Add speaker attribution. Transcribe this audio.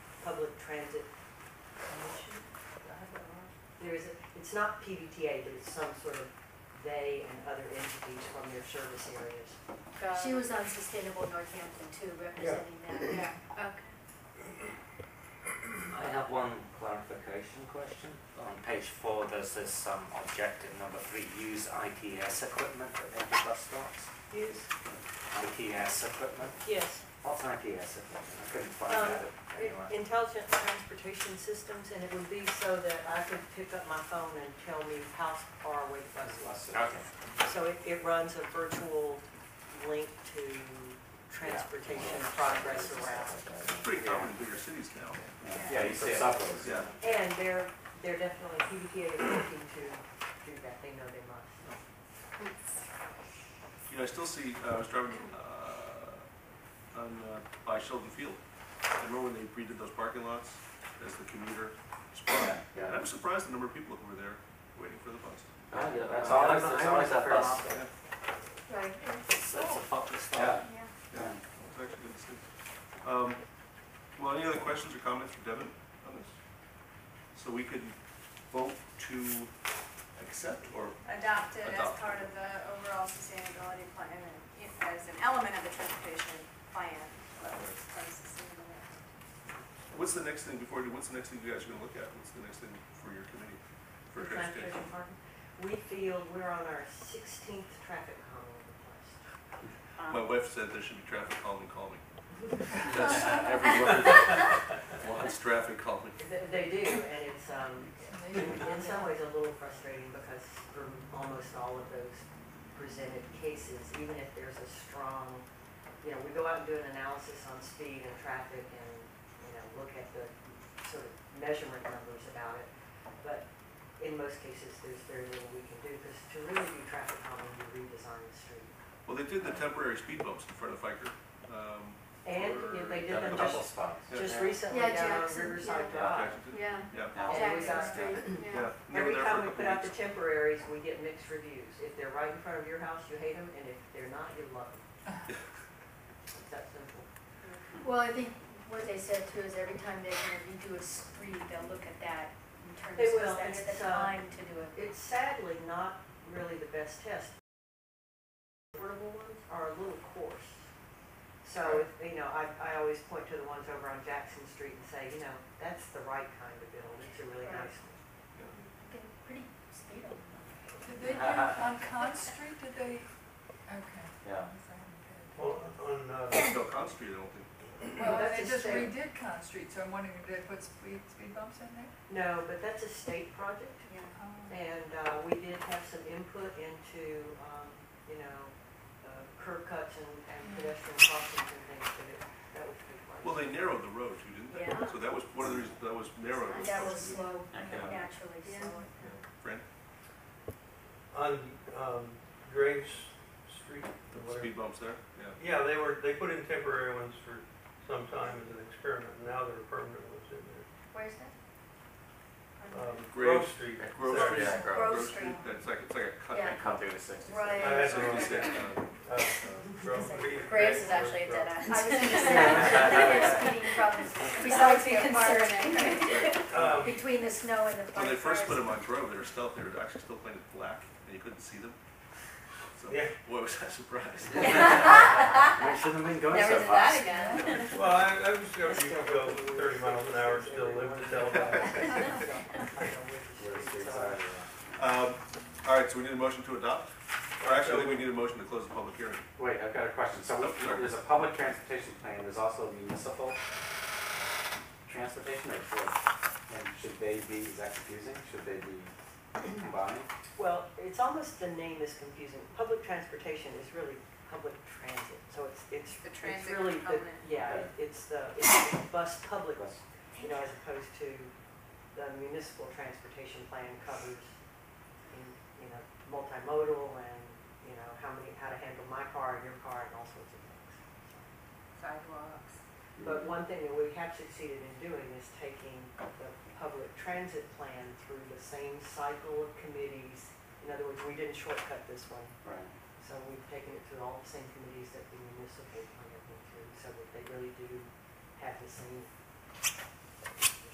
Speaker 1: Public Transit Commission? Did I have that wrong? There is, a- it's not PBTA, but it's some sort of they and other entities from their service areas.
Speaker 2: She was uh, on Sustainable Northampton too, representing that.
Speaker 3: Yeah, okay.
Speaker 4: I have one clarification question. On page four, there's this um, objective number three, use ITS equipment at major bus stops.
Speaker 1: Yes.
Speaker 4: ITS equipment?
Speaker 5: Yes,
Speaker 4: What's ITS equipment? I couldn't find
Speaker 5: Um,
Speaker 4: that anywhere.
Speaker 5: intelligent transportation systems, and it would be so that I could pick up my phone and tell me how far away the bus was.
Speaker 4: Okay,
Speaker 5: So it, it runs a virtual link to transportation progress around.
Speaker 6: It's pretty common in bigger cities now.
Speaker 4: yeah, you see it. Subways,
Speaker 6: Yeah.
Speaker 5: And they're, they're definitely, PBTA is looking to do that, they know they must.
Speaker 6: You know, I still see, uh, I was driving uh, on, uh, by Sheldon Field. I remember when they redid those parking lots as the commuter spot.
Speaker 4: Yeah, Oh,
Speaker 6: And I was surprised the number of people who were there waiting for the bus.
Speaker 4: yeah. That's
Speaker 7: Yeah,
Speaker 4: always,
Speaker 7: I
Speaker 4: that's
Speaker 7: went
Speaker 4: always
Speaker 7: there
Speaker 4: that
Speaker 7: first.
Speaker 4: bus.
Speaker 2: Right.
Speaker 4: It's it's a popular stop.
Speaker 6: Yeah.
Speaker 3: Yeah.
Speaker 4: Yeah.
Speaker 6: It's actually good to see. Um, Well, any other questions or comments for Devin on this? So we could vote to accept or,
Speaker 3: Adopted as
Speaker 6: Adopted.
Speaker 3: part of the overall sustainability plan and you know, as an element of the transportation plan. but it's part of sustainability.
Speaker 6: what's the next thing before, we do- what's the next thing you guys are gonna look at? What's the next thing for your committee? For transportation?
Speaker 5: Transportation partner. We feel we're on our sixteenth traffic calm of the place.
Speaker 3: Um,
Speaker 6: My wife said there should be traffic calming, calming.
Speaker 4: That's every word.
Speaker 6: Lots of traffic calming.
Speaker 5: Th- They do, and it's, um, in some ways a little frustrating because for almost all of those presented cases, even if there's a strong, you know, we go out and do an analysis on speed and traffic and, you know, look at the sort of measurement numbers about it. But in most cases, there's very little we can do because to really do traffic calming, you redesign the street.
Speaker 6: Well, they did the temporary speed bumps in front of Fiker. Um,
Speaker 5: And if they did
Speaker 4: Yeah,
Speaker 5: them
Speaker 4: the
Speaker 5: just,
Speaker 4: double spots.
Speaker 5: just
Speaker 4: Yeah.
Speaker 5: recently
Speaker 2: Yeah,
Speaker 5: down on
Speaker 2: Jackson,
Speaker 5: Riverside
Speaker 2: yeah.
Speaker 5: Drive.
Speaker 6: Jackson did?
Speaker 2: Ah. Yeah,
Speaker 6: Yeah.
Speaker 4: Now,
Speaker 5: Yeah, we
Speaker 2: Jackson
Speaker 5: got
Speaker 2: Street, yeah.
Speaker 6: Yeah. They were
Speaker 5: Every
Speaker 6: there for a
Speaker 5: time we
Speaker 6: couple
Speaker 5: put out the
Speaker 6: weeks.
Speaker 5: temporaries, we get mixed reviews. If they're right in front of your house, you hate them, and if they're not, you love them. It's that simple.
Speaker 2: Well, I think what they said too is every time they're gonna redo a street, they'll look at that in terms
Speaker 5: They will,
Speaker 2: of that's
Speaker 5: and it's,
Speaker 2: the
Speaker 5: uh,
Speaker 2: time to do it.
Speaker 5: It's sadly not really the best test. Portable ones are a little coarse. So, if- you know, I, I always point to the ones over on Jackson Street and say, you know, that's the right kind of build. It's a really nice one.
Speaker 2: Getting Pretty speed up.
Speaker 8: Did they do, on Con Street, did they, okay.
Speaker 4: Yeah.
Speaker 7: On, on, uh,
Speaker 6: No, Con Street, I don't think.
Speaker 8: Well,
Speaker 5: that's a
Speaker 8: they just
Speaker 5: state-
Speaker 8: redid Con Street, so I'm wondering, did they put speed, speed bumps in there?
Speaker 5: No, but that's a state project.
Speaker 3: yeah.
Speaker 8: Oh.
Speaker 5: And uh, we did have some input into, um, you know, uh, curb cuts and and pedestrian crossings and things, but it, that was a big part.
Speaker 6: Well, they narrowed the road too, didn't they?
Speaker 2: Yeah.
Speaker 6: So that was one of the reasons, that was narrowed. was
Speaker 2: That was
Speaker 6: supposed to be-
Speaker 2: slow,
Speaker 4: Okay.
Speaker 2: naturally
Speaker 5: Yeah.
Speaker 2: slow.
Speaker 6: Fran,
Speaker 7: on, um, Greg's Street, or
Speaker 6: the
Speaker 7: whatever.
Speaker 6: speed bumps there, yeah.
Speaker 7: Yeah, they were, they put in temporary ones for some time as an experiment, and now there are permanent ones in there.
Speaker 2: Where's that?
Speaker 7: Um,
Speaker 6: Grove-
Speaker 7: Grove Street.
Speaker 6: Grove
Speaker 7: there.
Speaker 6: Street.
Speaker 4: Yeah,
Speaker 2: Grove
Speaker 6: Grove
Speaker 2: Street.
Speaker 6: That's like, it's like a cut.
Speaker 2: Yeah.
Speaker 4: Come through the sixty.
Speaker 2: Right.
Speaker 7: I had to
Speaker 6: Sixty six,
Speaker 7: reset,
Speaker 6: uh,
Speaker 7: uh, Grove. we-
Speaker 3: Graves is actually a dead
Speaker 2: I
Speaker 3: end.
Speaker 2: was gonna say, there's speeding problems besides the apartment,
Speaker 7: Um,
Speaker 2: between the snow and the.
Speaker 6: When they first put
Speaker 2: cars.
Speaker 6: them on Grove, they were stealth, they were actually still painted black, and you couldn't see them. So,
Speaker 7: Yeah.
Speaker 6: boy, was I surprised.
Speaker 4: We shouldn't have been going
Speaker 3: Never
Speaker 4: so
Speaker 3: did
Speaker 4: fast.
Speaker 3: that again.
Speaker 7: Well, I, I was gonna, you could go thirty miles an hour, and still live to tell about it.
Speaker 6: Um, all right, so we need a motion to adopt, or actually, I think we need a motion to close the public hearing.
Speaker 4: Wait, I've got a question. So we- there's a public transportation plan, there's also a municipal transportation or what? And should they be, is that confusing? Should they be combined?
Speaker 5: Well, it's almost, the name is confusing. Public transportation is really public transit, so it's, it's,
Speaker 3: The
Speaker 5: it's
Speaker 3: transit
Speaker 5: really the,
Speaker 3: component.
Speaker 5: yeah, it- it's the, it's the bus public,
Speaker 4: Bus.
Speaker 5: you know, as opposed to the municipal transportation plan covers, in- you know, multimodal and, you know, how many, how to handle my car and your car and all sorts of things.
Speaker 3: Sidewalks.
Speaker 5: But one thing that we have succeeded in doing is taking the public transit plan through the same cycle of committees. In other words, we didn't shortcut this one,
Speaker 4: Right.
Speaker 5: so we've taken it through all the same committees that the municipal plan went through, so that they really do have the same